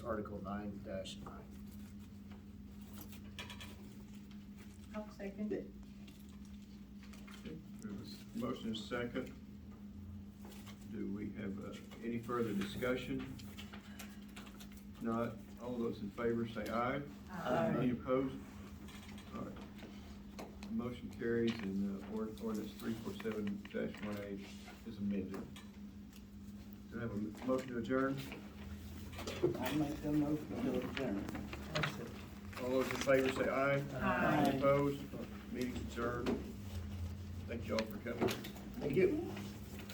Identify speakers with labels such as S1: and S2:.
S1: Article nine dash nine.
S2: I'll second it.
S3: There was Motion is second. Do we have uh, any further discussion? Not, all those in favor say aye.
S2: Aye.
S3: Any opposed? All right. Motion carries and uh, ord- ordinance three four seven one eight is amended. Do I have a m- motion to adjourn?
S4: I make the motion to adjourn.
S3: All those in favor say aye.
S2: Aye.
S3: Any opposed? Meeting adjourned. Thank you all for coming.
S1: Thank you.